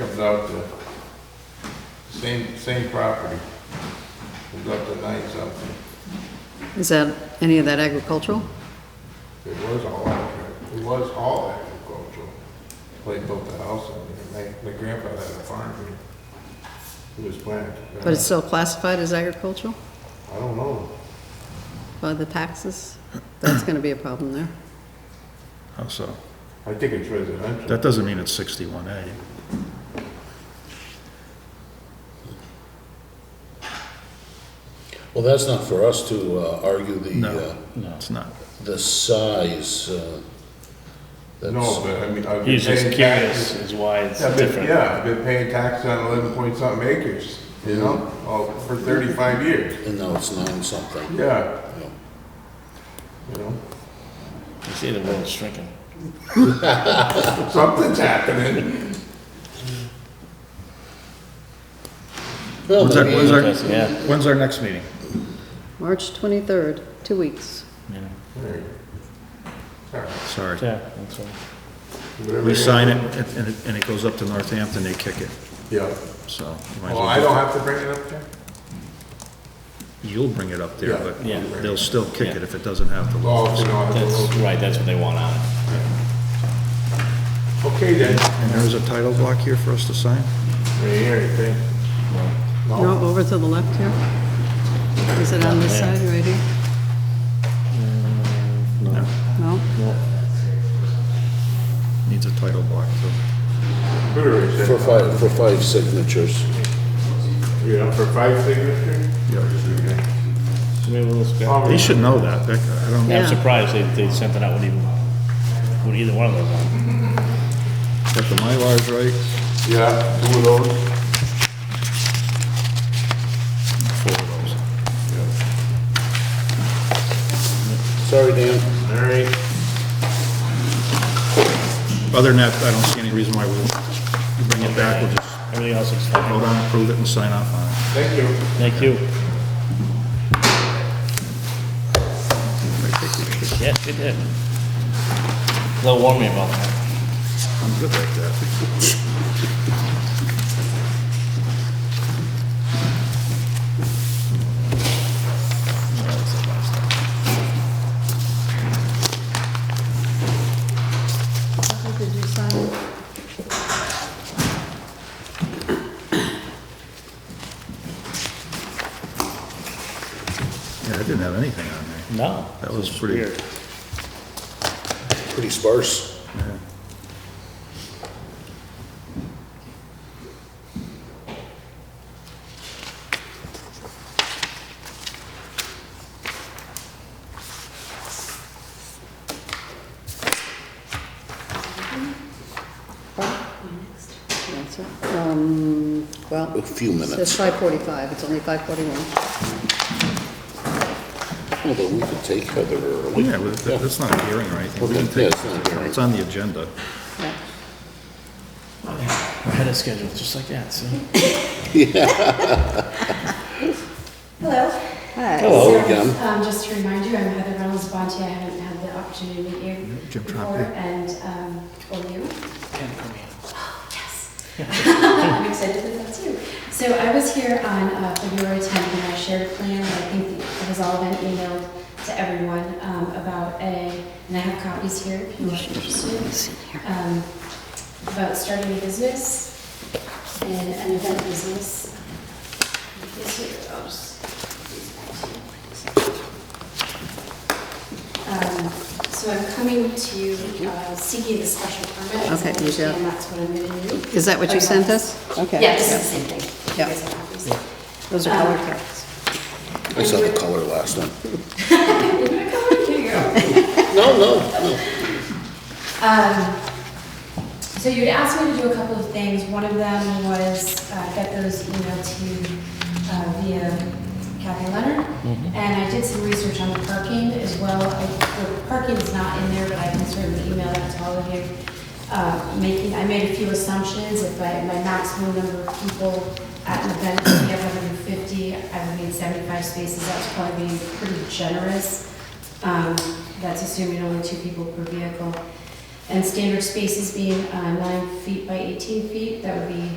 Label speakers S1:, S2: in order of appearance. S1: is out to, same, same property. It's up to nine something.
S2: Is that, any of that agricultural?
S1: It was all, agriculture. it was all agricultural. They built the house and my, my grandpa had a farm here. He was planted.
S2: But it's still classified as agricultural
S1: I don't know.
S2: by the taxes? That's gonna be a problem there.
S3: How Oh, so?
S1: I think it's residential.
S3: That doesn't mean it's sixty-one A.
S4: Well, that's not for us to uh, argue the, uh,
S3: No, it's not.
S4: the size. uh,
S1: No,
S4: That's,
S1: but I mean, I've been
S5: He's just
S1: paying
S5: curious
S1: taxes.
S5: is why it's
S1: I've been-
S5: different.
S1: Yeah, I've been paying tax on eleven point something acres, you know, all- for thirty-five years.
S4: and now it's nine something.
S1: Yeah,
S4: Yeah.
S1: you know,
S5: You see the world's shrinking.
S1: something's happening.
S4: Well,
S3: When's our,
S4: maybe-
S3: when's our,
S5: Yeah.
S3: when's our next meeting?
S2: March 23rd, two weeks.
S5: yeah,
S1: There you go. All right,
S3: Sorry.
S5: Yeah, that's right.
S1: whatever
S3: We
S1: you-
S3: sign it and- and, it- and it goes up to Northampton, they kick it,
S1: Yeah.
S3: so. you might as
S1: Well,
S3: well
S1: I
S3: do
S1: don't
S3: that.
S1: have to bring it up there?
S3: You'll bring it up there,
S1: Yeah.
S3: but
S5: Yeah.
S3: they'll still kick it if it doesn't have the
S1: Oh,
S3: logo.
S1: you know, I have to
S5: That's
S1: look.
S5: right, that's what they want on it.
S1: Okay then.
S3: And there's a title block here for us to sign?
S1: Right here, you think?
S2: No, over to the left here. Is it on this side, right here? No. No?
S3: Needs a title block, so.
S1: Computer is
S4: For
S1: it?
S4: five, for five signatures.
S1: Yeah, for five signatures? Yeah.
S5: Maybe we'll just go-
S3: They should know that, That- I don't,
S5: I'm
S2: Yeah.
S5: surprised they, they sent it out with even, with either one of those on.
S3: got the Mylars right,
S1: Yeah, two of those.
S3: four of those.
S4: Sorry, Dan.
S1: All right.
S3: Other than that, I don't see any reason why we'll bring it back, we'll just
S5: Everything else looks fine.
S3: vote on it, approve it, and sign off on it.
S1: Thank you.
S5: Thank you. Yes, we did. They'll warn me about that.
S3: I'm good like that.
S2: Did you sign?
S3: Yeah, I didn't have anything on there.
S5: No.
S3: That was
S5: It's
S3: pretty-
S5: weird.
S4: Pretty sparse.
S2: That's it. Um, well,
S4: A few
S2: it says
S4: minutes.
S2: 5:45, it's only 5:41.
S4: Although we could take Heather early.
S3: Yeah, but that- that's not a hearing, right? We can
S4: Yeah,
S3: take-
S4: it's not a hearing.
S3: It's on the agenda.
S2: Yeah.
S5: Ahead of schedule, just like that, see?
S2: Hi.
S4: Hello
S6: So,
S4: again.
S6: Um, just to remind you, I'm Heather Reynolds Bonte. I haven't had the opportunity to meet you
S3: Jim Trompe.
S6: before, and, um, well, you. Oh,
S5: Ken, come here.
S6: Yes. I'm excited that that's you. So I was here on uh, February 10th and I shared a plan that I think it has all been emailed to everyone um, about a, and I have copies here if you are interested, um, about starting a business and an event business. This here, I'll just- these back to you. Um, So I'm coming to you uh, seeking the special permit. as I
S2: Okay, you got it.
S6: understand that's what I'm going to do.
S2: Is that what
S6: Oh,
S2: you
S6: yeah.
S2: sent us? Okay.
S6: Yeah, this is the same thing. You
S2: Yeah.
S6: guys have copies.
S2: Those are color cards.
S4: I saw the color last one.
S6: You're gonna come in here, girl.
S4: No, no, no.
S6: Um, So you'd asked me to do a couple of things. One of them was uh, get those emailed to you uh, via Kathy Leonard. And I did some research on the parking as well. I- The parking is not in there, but I can certainly email that to all of you. Uh, Making, I made a few assumptions. If I, my maximum number of people at an event would be 150, I would need 75 spaces. That's probably being pretty generous. Um, That's assuming only two people per vehicle. And standard spaces being uh, nine feet by 18 feet, that would be